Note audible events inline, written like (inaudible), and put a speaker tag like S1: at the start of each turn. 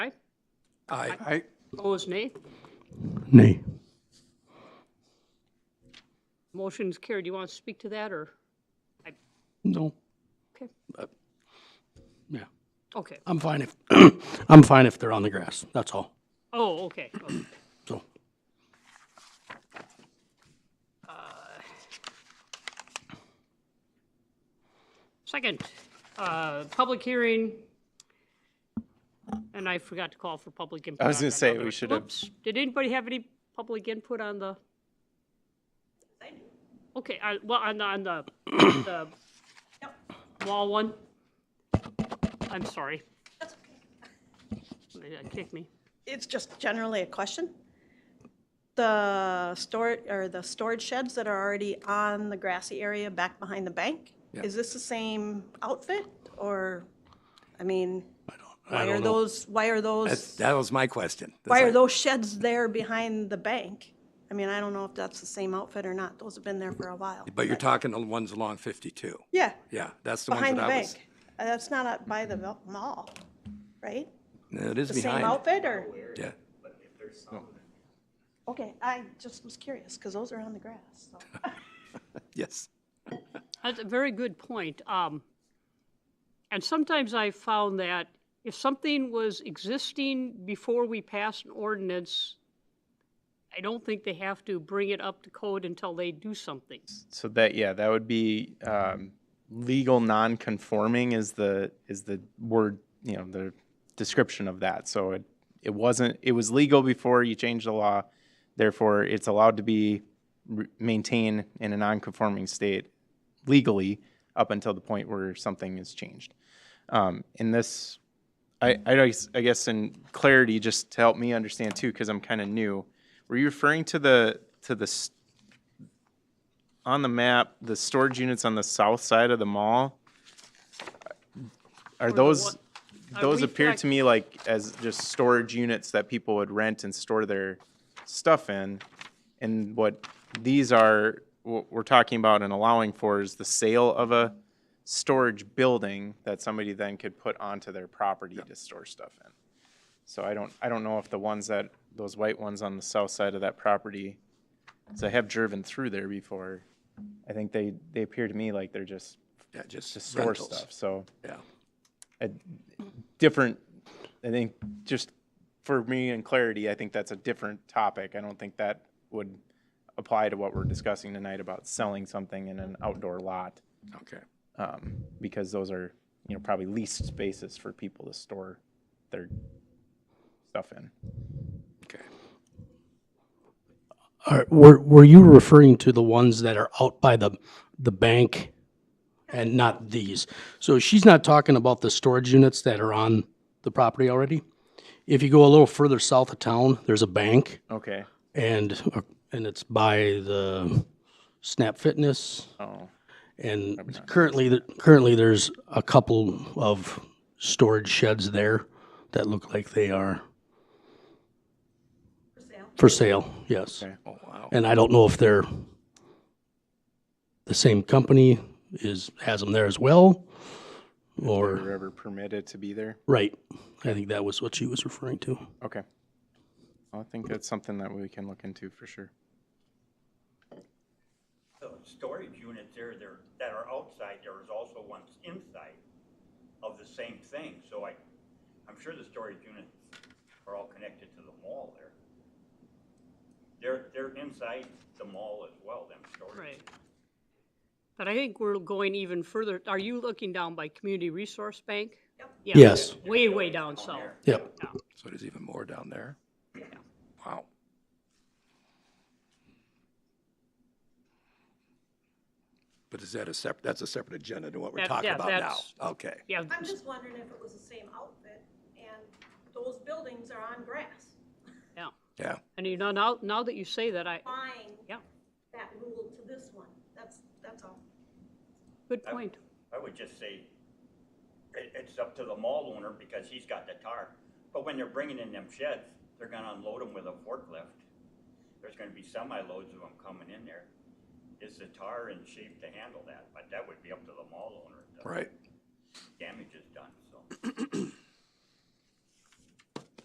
S1: Aye.
S2: Aye.
S1: Opposed, nay.
S3: Nay.
S1: Motion's carried. Do you want to speak to that, or?
S3: No.
S1: Okay,
S3: Yeah.
S1: okay.
S3: I'm fine if, (clears throat) I'm fine if they're on the grass. That's all.
S1: Oh, okay. okay.
S3: So,
S1: Second, uh, public hearing, and I forgot to call for public input.
S2: I was
S1: on
S2: gonna
S1: that
S2: say,
S1: other-
S2: we should have-
S1: Oops. Did anybody have any public input on the? Okay, I- well, on the, on the, (coughs) the wall one? I'm sorry.
S4: That's okay.
S1: Somebody Kicked me.
S4: It's just generally a question. The store, or the storage sheds that are already on the grassy area back behind the bank, is this the same outfit? Or, I mean,
S3: I
S4: why are
S3: don't know.
S4: those, why are
S2: That's,
S4: those,
S2: that was my question. That's
S4: why are
S2: like-
S4: those sheds there behind the bank? I mean, I don't know if that's the same outfit or not. Those have been there for a while.
S2: But you're talking the ones along 52.
S4: Yeah,
S2: Yeah, that's the ones
S4: behind
S2: that
S4: the
S2: I
S4: bank.
S2: was.
S4: Uh, That's not up by the mall- mall, right?
S2: No, It is
S4: The same
S2: behind.
S4: outfit or?
S2: Yeah.
S4: Okay, I just was curious, because those are on the grass, so.
S2: Yes.
S1: That's a very good point. Um, and sometimes I found that if something was existing before we pass an ordinance, I don't think they have to bring it up to code until they do something.
S5: So that, yeah, that would be um, legal non-conforming is the, is the word, you know, the description of that. So it, it wasn't, it was legal before you changed the law, therefore it's allowed to be re- maintained in a non-conforming state legally up until the point where something is changed. Um, In this, I, I guess- I guess in clarity, just to help me understand too, because I'm kind of new, were you referring to the, to the s- on the map, the storage units on the south side of the mall, are those,
S1: Are
S5: those
S1: we
S5: appear
S1: fact-
S5: to me like as just storage units that people would rent and store their stuff in. And what these are, what we're talking about and allowing for is the sale of a storage building that somebody then could put onto their property to store stuff in. So I don't, I don't know if the ones that, those white ones on the south side of that property, so I have driven through there before. I think they, they appear to me like they're just
S2: Yeah, just
S5: to store
S2: rentals.
S5: stuff, so
S2: Yeah.
S5: different, I think, just for me and clarity, I think that's a different topic. I don't think that would apply to what we're discussing tonight about selling something in an outdoor lot,
S2: Okay.
S5: um, because those are, you know, probably leased spaces for people to store their stuff in.
S2: Okay.
S3: are, were, were you referring to the ones that are out by the, the bank and not these? So she's not talking about the storage units that are on the property already? If you go a little further south of town, there's a bank
S5: Okay,
S3: and, uh, and it's by the Snap Fitness.
S5: oh,
S3: And currently, th- currently, there's a couple of storage sheds there that look like they are. For sale? yes.
S5: Okay.
S2: Oh, wow.
S3: And I don't know if they're, the same company is, has them there as well, or,
S5: wherever permitted to be there,
S3: right. I think that was what she was referring to.
S5: okay. I think that's something that we can look into for sure.
S6: The storage units there, there, that are outside, there is also ones inside of the same thing, so I, I'm sure the storage units are all connected to the mall there. They're, they're inside the mall as well, them storage.
S1: Right. But I think we're going even further. Are you looking down by Community Resource Bank? Yeah,
S3: Yes.
S1: Way, way down south.
S3: Yep,
S2: So there's even more down there? Wow. But is that a separate, that's a separate agenda to what we're
S1: That-
S2: talking
S1: yeah,
S2: about now?
S1: that's-
S2: Okay.
S1: Yeah,
S4: I'm just wondering if it was the same outfit, and those buildings are on grass,
S1: yeah.
S2: Yeah.
S1: And you know, now, now that you say that, I,
S4: applying
S1: yeah,
S4: that rule to this one. That's, that's all.
S1: good point.
S6: I would just say, it, it's up to the mall owner because he's got the tar. But when they're bringing in them sheds, they're gonna unload them with a forklift. There's gonna be semi-loads of them coming in there. Is the tar in shape to handle that? But that would be up to the mall owner. if the
S2: Right.
S6: Damage is done, so.